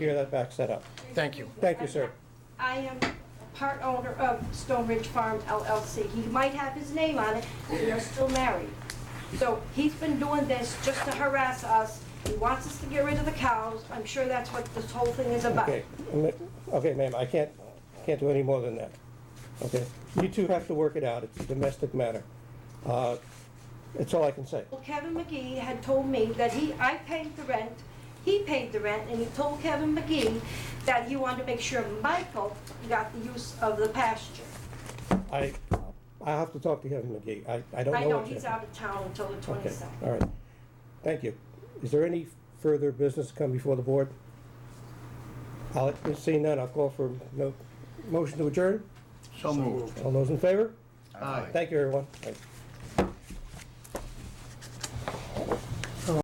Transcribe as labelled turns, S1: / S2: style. S1: Here, that backs that up.
S2: Thank you.
S1: Thank you, sir.
S3: I am part owner of Stone Ridge Farm LLC. He might have his name on it, but we are still married. So he's been doing this just to harass us. He wants us to get rid of the cows. I'm sure that's what this whole thing is about.
S1: Okay, ma- okay, ma'am, I can't, can't do any more than that. Okay? You two have to work it out. It's a domestic matter. Uh, That's all I can say.
S3: Well, Kevin McGee had told me that he, I paid the rent, he paid the rent, and he told Kevin McGee that he wanted to make sure Michael got the use of the pasture.
S1: I, I have to talk to Kevin McGee. I, I don't know what
S3: I know
S1: you-
S3: he's out of town until the
S1: Okay,
S3: 22nd.
S1: all right. Thank you. Is there any further business to come before the board? I'll, seeing none, I'll call for no, motion to adjourn.
S2: So moved.
S1: All those in favor?
S2: Aye.
S1: Thank you, everyone. Thank you.